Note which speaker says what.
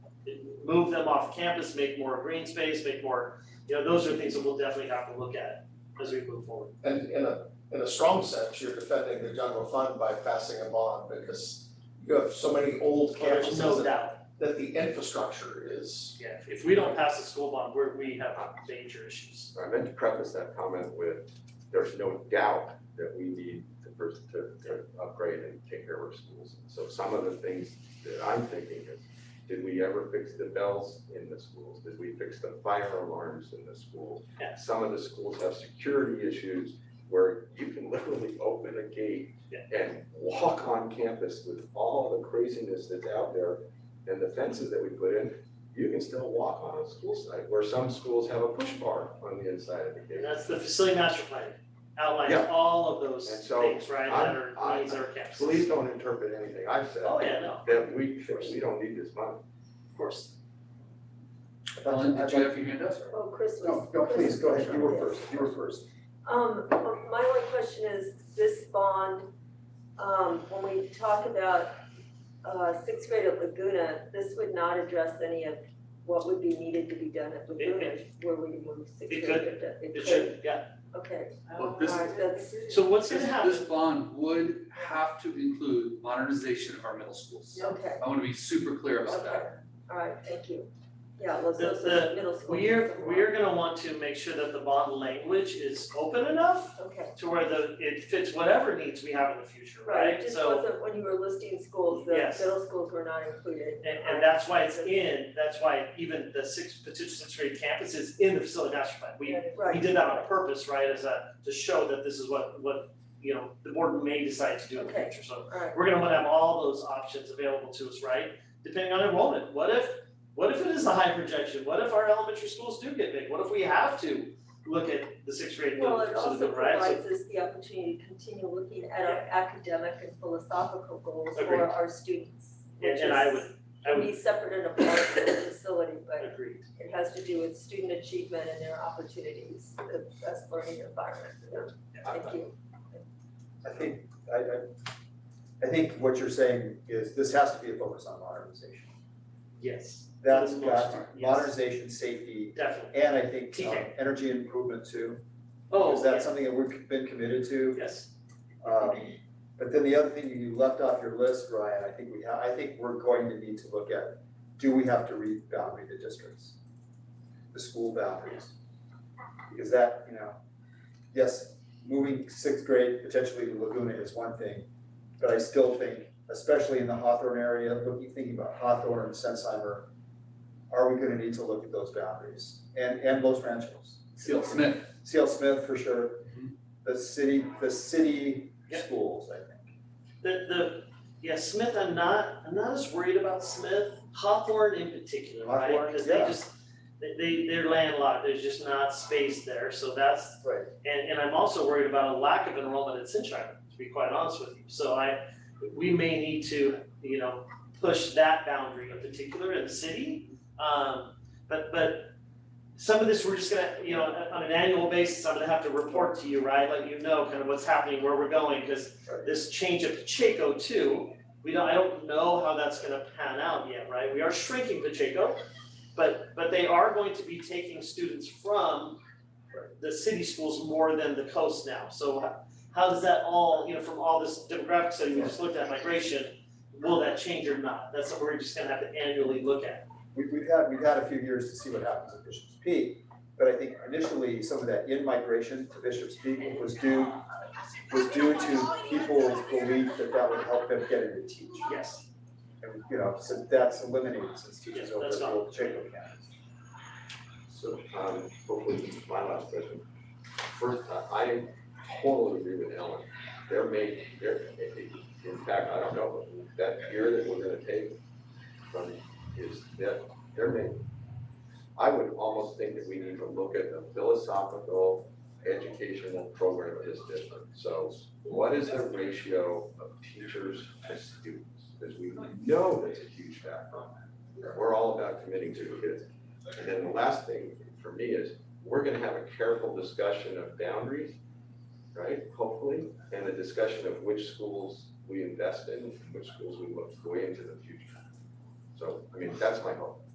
Speaker 1: move them off campus, make more green space, make more, you know, those are things that we'll definitely have to look at as we move forward.
Speaker 2: And in a, in a strong sense, you're defending the general fund by passing a bond because you have so many old
Speaker 1: There's no
Speaker 2: campuses that-
Speaker 1: doubt,
Speaker 2: that the infrastructure is.
Speaker 1: yeah, if we don't pass the school bond, we're, we have major issues.
Speaker 3: I meant to preface that comment with, there's no doubt that we need to, pers- to, to upgrade and take care of our schools. So some of the things that I'm thinking is, did we ever fix the bells in the schools? Did we fix the fire alarms in the schools?
Speaker 1: Yeah.
Speaker 3: Some of the schools have security issues where you can literally open a gate
Speaker 1: Yeah.
Speaker 3: and walk on campus with all the craziness that's out there and the fences that we put in, you can still walk on a school site, where some schools have a push bar on the inside of the
Speaker 1: And
Speaker 3: gate.
Speaker 1: that's the facility master plan outlines
Speaker 3: Yeah.
Speaker 1: all of those
Speaker 3: And so,
Speaker 1: things, right, that are
Speaker 3: I-
Speaker 1: needs our campuses.
Speaker 3: Please don't interpret anything I've said.
Speaker 1: Oh, yeah, no,
Speaker 3: That we, that we don't need this money.
Speaker 1: of course.
Speaker 4: Ellen, did you have your hand up?
Speaker 5: Oh, Chris was.
Speaker 2: No, no, please, go ahead, you were first, you were first.
Speaker 5: Um, my only question is, this bond, um, when we talk about, uh, sixth grade at Laguna, this would not address any of what would be needed to be done at Laguna, where we move sixth
Speaker 1: It
Speaker 5: grade.
Speaker 1: could.
Speaker 5: to-
Speaker 1: It should, yeah.
Speaker 5: Okay,
Speaker 4: Well, this,
Speaker 5: alright, that's,
Speaker 1: So what's
Speaker 4: this,
Speaker 1: gonna happen?
Speaker 4: this bond would have to include modernization of our middle schools.
Speaker 5: okay,
Speaker 4: I wanna be super clear about
Speaker 5: okay,
Speaker 4: that.
Speaker 5: alright, thank you. Yeah, Los
Speaker 1: The-
Speaker 5: Osos
Speaker 1: the-
Speaker 5: Middle School.
Speaker 1: We're, we're gonna want to make sure that the bond language is open enough
Speaker 5: Okay,
Speaker 1: to where the, it fits whatever needs we have in the future,
Speaker 5: right, it
Speaker 1: right?
Speaker 5: just
Speaker 1: So,
Speaker 5: wasn't, when you were listing schools, the
Speaker 1: Yes.
Speaker 5: middle schools were not included.
Speaker 1: and, and that's why it's in, that's why even the six, potential sixth grade campus is in the facility master plan. We, we
Speaker 5: Right,
Speaker 1: did that on purpose, right, as a, to show that this is what, what, you know, the board may decide to do in the
Speaker 5: Okay.
Speaker 1: future, so.
Speaker 5: alright,
Speaker 1: we're gonna wanna have all those options available to us, right? Depending on enrollment, what if, what if it is a high projection, what if our elementary schools do get big, what if we have to look at the sixth grade
Speaker 5: Well,
Speaker 1: movement
Speaker 5: it
Speaker 1: versus the
Speaker 5: also
Speaker 1: middle, right? So-
Speaker 5: provides us the opportunity to continue looking at our academic and philosophical goals
Speaker 1: Agreed.
Speaker 5: for our students.
Speaker 1: And- and I would- I would-
Speaker 5: Which is, be separate and apart from the facility, but
Speaker 1: Agreed,
Speaker 5: it has to do with student achievement and their opportunities, the best learning environment for them. Thank you.
Speaker 6: I think, I, I, I think what you're saying is this has to be a focus on modernization.
Speaker 1: yes,
Speaker 6: That's
Speaker 1: For the most
Speaker 6: got
Speaker 1: part, yes.
Speaker 6: modernization, safety,
Speaker 1: definitely.
Speaker 6: and I think um,
Speaker 1: TK.
Speaker 6: energy improvement too.
Speaker 1: Oh,
Speaker 6: Is that
Speaker 1: yes,
Speaker 6: something that we've been committed to?
Speaker 1: yes,
Speaker 6: Um, but then the other thing you left off your list, Ryan, I think we, ha- I think we're going to need to look at, do we have to re-boundary the districts? The school boundaries? Because that, you know, yes, moving sixth grade potentially to Laguna is one thing, but I still think, especially in the Hawthorne area, looking, thinking about Hawthorne and Sensheimer, are we gonna need to look at those boundaries? And, and Los Ranchos.
Speaker 4: Seal Smith,
Speaker 6: CL Smith for sure.
Speaker 4: Mhm.
Speaker 6: The city, the city
Speaker 1: Yep.
Speaker 6: schools, I think.
Speaker 1: the, the, yeah, Smith, I'm not, I'm not as worried about Smith, Hawthorne in particular, right?
Speaker 6: Hawthorne,
Speaker 1: Cause they
Speaker 6: yeah.
Speaker 1: just, they, they, they're landlocked, there's just not space there, so that's,
Speaker 6: Right.
Speaker 1: And, and I'm also worried about a lack of enrollment at Sunshine, to be quite honest with you. So I, we may need to, you know, push that boundary in particular in the city. Um, but, but some of this, we're just gonna, you know, on on an annual basis, I'm gonna have to report to you, right? Let you know kind of what's happening, where we're going, because
Speaker 6: Right.
Speaker 1: this change of Pacheco too, we don't, I don't know how that's gonna pan out yet, right? We are shrinking Pacheco, but, but they are going to be taking students from the city schools more than the coast now, so how- how does that all, you know, from all this demographic study we just looked at migration, will that change or not? That's something we're just gonna have to annually look at.
Speaker 6: We, we've had, we've had a few years to see what happens at Bishop's Peak, but I think initially some of that in-migration to Bishop's Peak was due, was due to people's belief that that would help them get into teaching.
Speaker 1: Yes,
Speaker 6: And, you know, so that's eliminated since teachers
Speaker 1: Yeah,
Speaker 6: over
Speaker 1: that's
Speaker 6: at
Speaker 1: gone.
Speaker 6: Old Pacheco campus.
Speaker 3: So, um, hopefully, my last question. First, I- I totally agree with Ellen. There may, there, in fact, I don't know, but that year that we're gonna take from is that, there may, I would almost think that we need to look at the philosophical educational program of this district. So what is the ratio of teachers to students? Because we know that's a huge factor. We're all about committing to kids. And then the last thing for me is, we're gonna have a careful discussion of boundaries, right, hopefully, and a discussion of which schools we invest in, which schools we look way into the future. So, I mean, that's my hope.